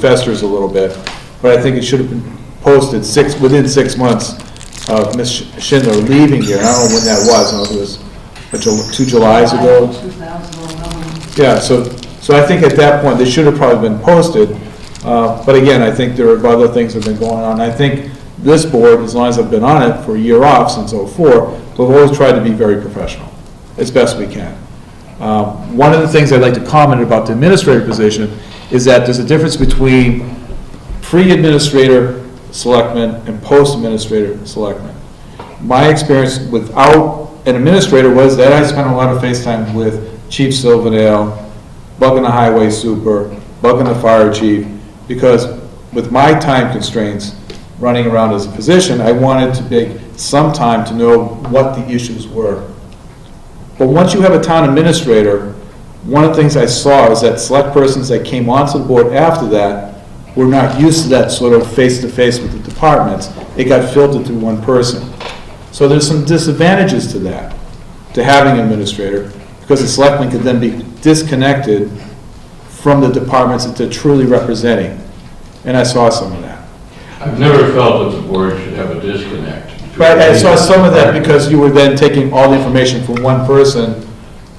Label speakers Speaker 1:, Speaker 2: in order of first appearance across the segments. Speaker 1: festers a little bit, but I think it should have been posted six, within six months of Ms. Schindler leaving here, and I don't know when that was, I don't know if it was a Ju- two Julys ago.
Speaker 2: 2011.
Speaker 1: Yeah, so, so I think at that point, they should have probably been posted, uh, but again, I think there are other things that have been going on. I think this board, as long as I've been on it for a year off since '04, we've always tried to be very professional, as best we can. Um, One of the things I'd like to comment about the administrator position is that there's a difference between pre-administrator selectman and post-administrator selectman. My experience without an administrator was that I spent a lot of face time with Chief Silverdale, bugging the highway super, bugging the fire chief, because with my time constraints, running around as a physician, I wanted to take some time to know what the issues were but once you have a town administrator, one of the things I saw is that select persons that came onto the board after that were not used to that sort of face-to-face with the departments. It got filtered through one person. So there's some disadvantages to that, to having an administrator, because the selectman could then be disconnected from the departments that they're truly representing. And I saw some of that.
Speaker 3: I've never felt that the board should have a disconnect.
Speaker 1: Right, I saw some of that because you were then taking all the information from one person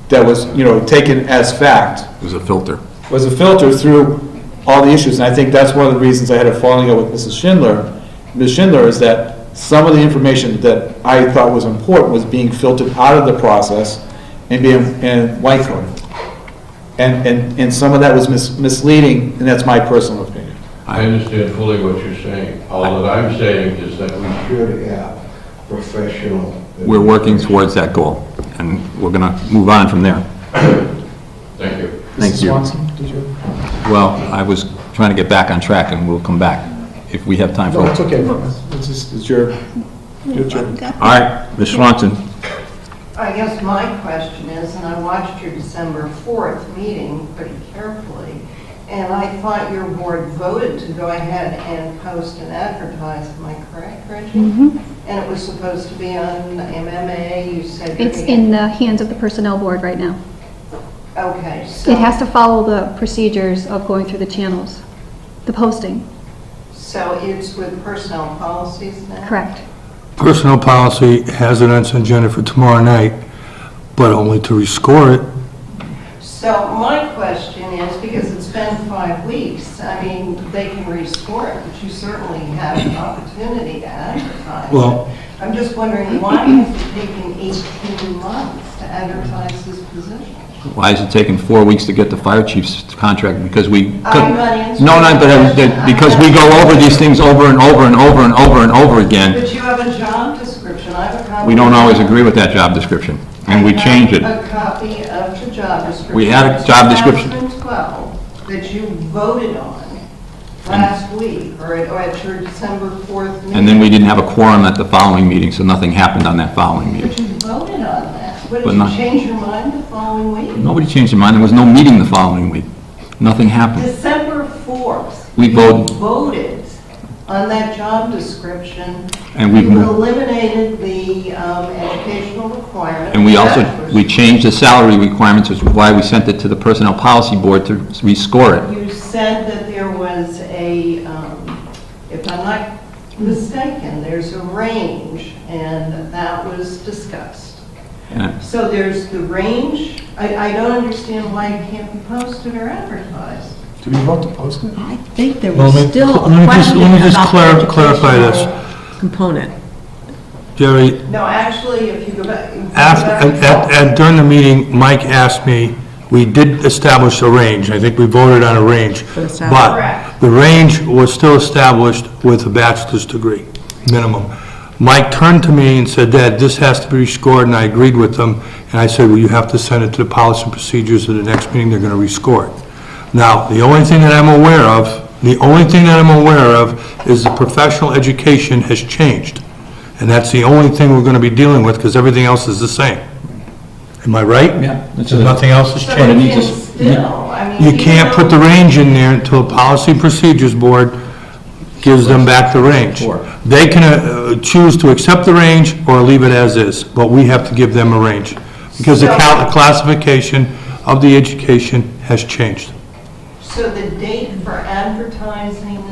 Speaker 1: that was, you know, taken as fact.
Speaker 4: There's a filter.
Speaker 1: was a filter through all the issues, and I think that's one of the reasons I had a falling out with Mrs. Schindler. Ms. Schindler is that some of the information that I thought was important was being filtered out of the process and being, and white coded. And, and, and some of that was mis- misleading, and that's my personal opinion.
Speaker 3: I understand fully what you're saying. All that I'm saying is that we should have professional.
Speaker 4: We're working towards that goal, and we're going to move on from there.
Speaker 3: Thank you.
Speaker 4: Thank you. Well, I was trying to get back on track, and we'll come back if we have time for it.
Speaker 1: okay. It's just, it's your, your turn.
Speaker 4: All right, Ms. Swanson.
Speaker 2: I guess my question is, and I watched your December 4th meeting pretty carefully, and I thought your board voted to go ahead and post and advertise, am I correct, Reggie?
Speaker 5: Mm-hmm.
Speaker 2: And it was supposed to be on MMA, you said. you're
Speaker 5: It's
Speaker 2: gonna-
Speaker 5: in the hands of the Personnel Board right now.
Speaker 2: Okay, so.
Speaker 5: It has to follow the procedures of going through the channels, the posting,
Speaker 2: So it's with personnel policies now?
Speaker 5: correct?
Speaker 6: Personnel policy has it on its agenda for tomorrow night, but only to rescore it.
Speaker 2: So my question is, because it's been five weeks, I mean, they can rescore it, but you certainly have an opportunity to advertise.
Speaker 6: Well-
Speaker 2: I'm just wondering why it's taking 18 months to advertise this position?
Speaker 4: Why is it taking four weeks to get the fire chief's contract? Because we...
Speaker 2: I'm not answering
Speaker 4: No, no, but uh,
Speaker 2: the question.
Speaker 4: because we go over these things over and over and over and over and over again,
Speaker 2: But you have a job description, I have a copy.
Speaker 4: we don't always agree with that job description, and we change it.
Speaker 2: I have a copy of the job description.
Speaker 4: We had a job description.
Speaker 2: 2012 that you voted on last week, or at or at your December 4th meeting.
Speaker 4: And then we didn't have a quorum at the following meeting, so nothing happened on that following meeting.
Speaker 2: But you voted on that. What, did
Speaker 4: But
Speaker 2: you
Speaker 4: not-
Speaker 2: change your mind the following week?
Speaker 4: Nobody changed their mind, there was no meeting the following week. Nothing happened.
Speaker 2: December 4th.
Speaker 4: We voted.
Speaker 2: You voted on that job description.
Speaker 4: And we've
Speaker 2: You
Speaker 4: moved.
Speaker 2: eliminated the um, educational requirement.
Speaker 4: And we
Speaker 2: for
Speaker 4: also,
Speaker 2: that
Speaker 4: we
Speaker 2: person.
Speaker 4: changed the salary requirements, which is why we sent it to the Personnel Policy Board to rescore it.
Speaker 2: You said that there was a, um, if I'm not mistaken, there's a range, and that was discussed.
Speaker 4: And
Speaker 2: So there's the range. I I don't understand why it can't be posted or advertised.
Speaker 1: Do we vote to post it?
Speaker 7: I think there
Speaker 6: Well,
Speaker 7: was
Speaker 6: let-
Speaker 7: still
Speaker 6: let me
Speaker 7: a
Speaker 6: just-
Speaker 7: question
Speaker 6: let me just
Speaker 7: about the
Speaker 6: clar- clarify this.
Speaker 7: educational component.
Speaker 6: Jerry,
Speaker 2: No, actually, if you go back. if you go
Speaker 6: af-
Speaker 2: back-
Speaker 6: and- and and during the meeting, Mike asked me, we did establish a range, I think we voted on a range.
Speaker 7: the salary.
Speaker 6: But
Speaker 2: Correct.
Speaker 6: the range was still established with a bachelor's degree, minimum. Mike turned to me and said, Dad, this has to be rescored, and I agreed with him. And I said, well, you have to send it to the policy and procedures at the next meeting, they're going to rescore it. Now, the only thing that I'm aware of, the only thing that I'm aware of is the professional education has changed. And that's the only thing we're going to be dealing with, because everything else is the same. Am I right?
Speaker 4: Yeah.
Speaker 6: Nothing else has
Speaker 2: So
Speaker 6: changed.
Speaker 2: you
Speaker 4: need
Speaker 2: can
Speaker 4: to s-
Speaker 2: still, I mean.
Speaker 6: You
Speaker 2: even
Speaker 6: can't put the
Speaker 2: though-
Speaker 6: range in there until the Policy and Procedures Board gives them back the range. They can uh, choose to accept the range or leave it as is, but we have to give them a range. Because the cal- classification of the education has changed.
Speaker 2: So the date for advertising